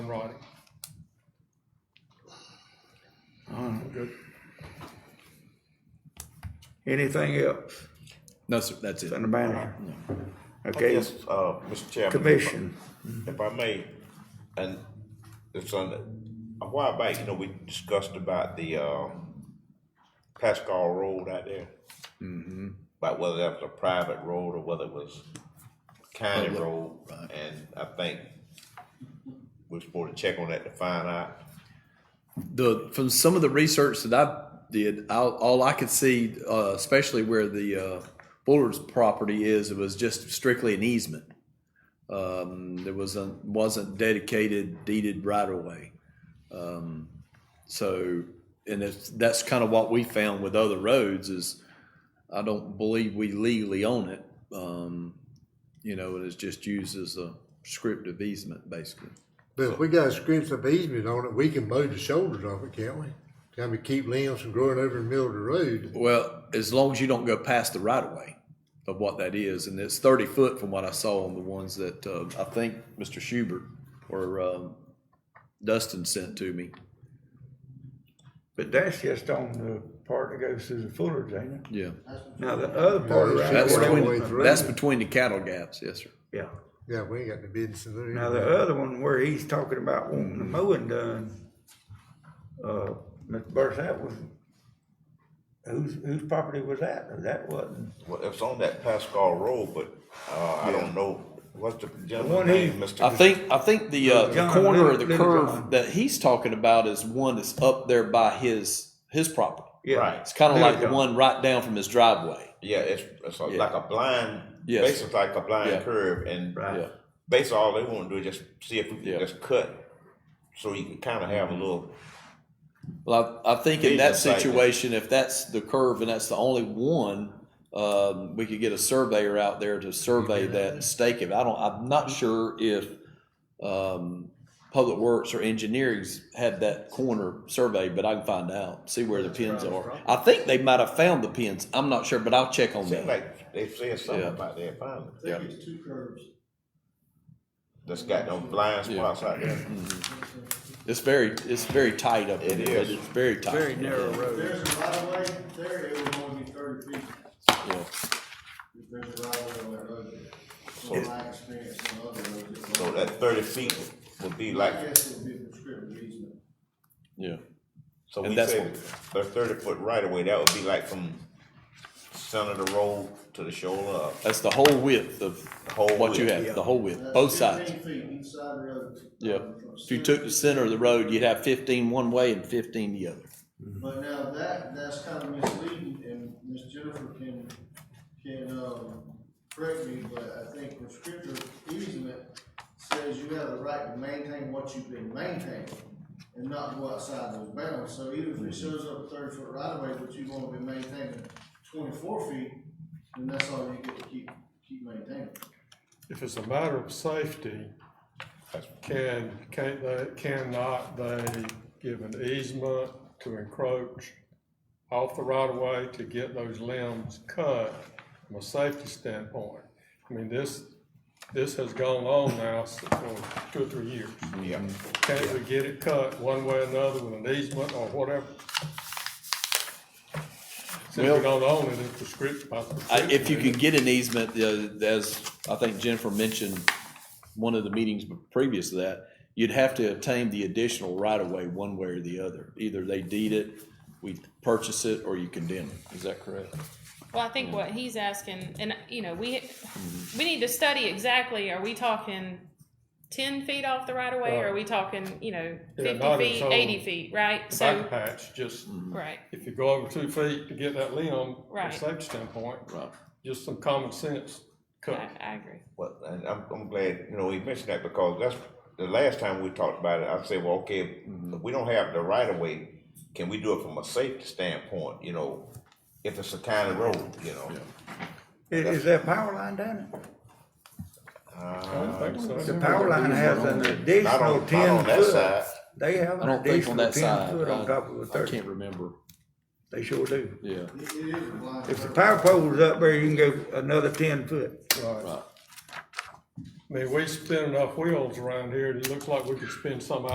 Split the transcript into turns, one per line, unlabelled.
Friday.
All right.
Good.
Anything else
No, sir, that's it.
from the manager? Okay,
Yes, uh, Mr. Chairman.
commission,
If I may, and it's on, a while back, you know, we discussed about the, uh, Pascal Road out there.
Mm-hmm.
About whether that was a private road or whether it was county
Oh,
Public,
road.
right.
And I think we're supposed to check on that to find out.
The, from some of the research that I did, all, all I could see, uh, especially where the, uh, Bullard's property is, it was just strictly an easement. Um, there wasn't, wasn't dedicated deeded right of way. Um, so, and it's, that's kind of what we found with other roads is I don't believe we legally own it. Um, you know, it is just used as a scriptive easement basically.
But if we got scripts of easement on it, we can mow the shoulders off it, can't we? Can we keep limbs from growing over the middle of the road?
Well, as long as you don't go past the right of way of what that is, and it's thirty foot from what I saw on the ones that uh, I think Mr. Schubert or um, Dustin sent to me.
but that's just on the part that goes through the Fuller's, ain't it?
Yeah,
Now, the other part
Yeah,
around.
that's
All the way
between,
through.
that's between the cattle gaps. Yes, sir.
Yeah.
Yeah, we ain't got the business in there.
Now, the other one where he's talking about wanting the mowing done, uh, Mr. Burris, that was, whose, whose property was that? That wasn't,
Well, it's on that Pascal Road, but, uh, I don't know, what's the
one
gentleman's name,
he-
Mr.?
I think I think the, uh, the
John,
corner of
little-
the
little
curve
John.
that he's talking about is one that's up there by his his property.
yeah.
Right.
It's kind of
Little
like the
John.
one right down from his driveway.
Yeah, it's, it's a-
Yeah.
like a blind,
Yes.
basically like a
Yeah.
blind curve and.
Right.
Yeah,
basically all they want to do is just see if we can
Yeah. Mm-hmm.
just cut so you can kind of have a little
Well, I, I think in
These
that
are safe.
situation, if that's the curve and that's the only one, um, we could get a surveyor out there to survey that and stake it. I don't, I'm not sure if, um, Public Works or Engineering's had that corner surveyed, but I can find out, see where the pins are. I think they might have found the pins. I'm not sure, but I'll check on that.
seem like they said something
Yeah.
about their pilot
Yeah.
There's two curves.
that's got no blind
Yeah. Mm-hmm.
spots out there
It's very, it's very tight up there.
It
but
is.
It's very tight. Very narrow road.
If there's a right of way, there it would only be thirty feet. If there's a right of way on that road. From my experience on other roads. it's
so
like-
that 30 feet would be like
I guess it would be a prescriptive easement.
Yeah,
so
And
we
that's
say
what-
the 30 foot right away that would be like from center of the road to the shoulder of
that's the whole width of
Whole
what you
width,
have, the whole width,
That's
both sides.
15 feet each side of the road.
Yeah,
From
if you took the center of the road, you'd have fifteen one way and fifteen the other.
But now that, that's kind of misleading, and Ms. Jennifer can, can, um, correct me, but I think prescriptive easement says you have the right to maintain what you've been maintaining and not go outside those bounds, so even if it shows up thirty foot right away, but you've only been maintaining twenty-four feet, then that's all you get to keep, keep maintaining.
If it's a matter of safety, can, can they, cannot they give an easement to encroach off the right of way to get those limbs cut from a safety standpoint? I mean, this, this has gone on now for two or three years.
yeah
Can't we get it cut one way or another with an easement or whatever? Since
Well-
we don't own it, it's prescriptive. by
I, if you
prescription.
could get an easement, uh, as I think Jennifer mentioned, one of the meetings previous to that, you'd have to obtain the additional right of way one way or the other. Either they deed it, we purchase it, or you condemn it. Is that correct?
Well, I think what he's asking, and you know, we
Mm-hmm.
we need to study exactly. Are we talking ten feet off the right of way? Or are we talking, you know,
Yeah,
fifty
not
feet,
its own
eighty feet? Right.
Back
So
patch, just
Mm.
right.
if you go over two feet to get that limb, from a
Right.
safety standpoint,
Right.
just some common sense
I,
cut.
I agree.
Well, and I'm, I'm glad, you know, we mentioned that because that's, the last time we talked about it, I said, well, okay, if we don't have the right of way, can we do it from a safety standpoint, you know? If it's a county road, you know?
Is, is that power line down it?
I don't think so.
The power line has an additional
Uh, not
ten
on that
foot.
side.
They have
I
an
don't think on
additional
that
ten
side.
foot on top of the
I I
thirty.
can't remember.
They sure do.
Yeah.
It, it is a blind.
If the power pole's up there, you can go another ten foot.
Right. I mean, we spin enough wheels around here, it looks like we could spin some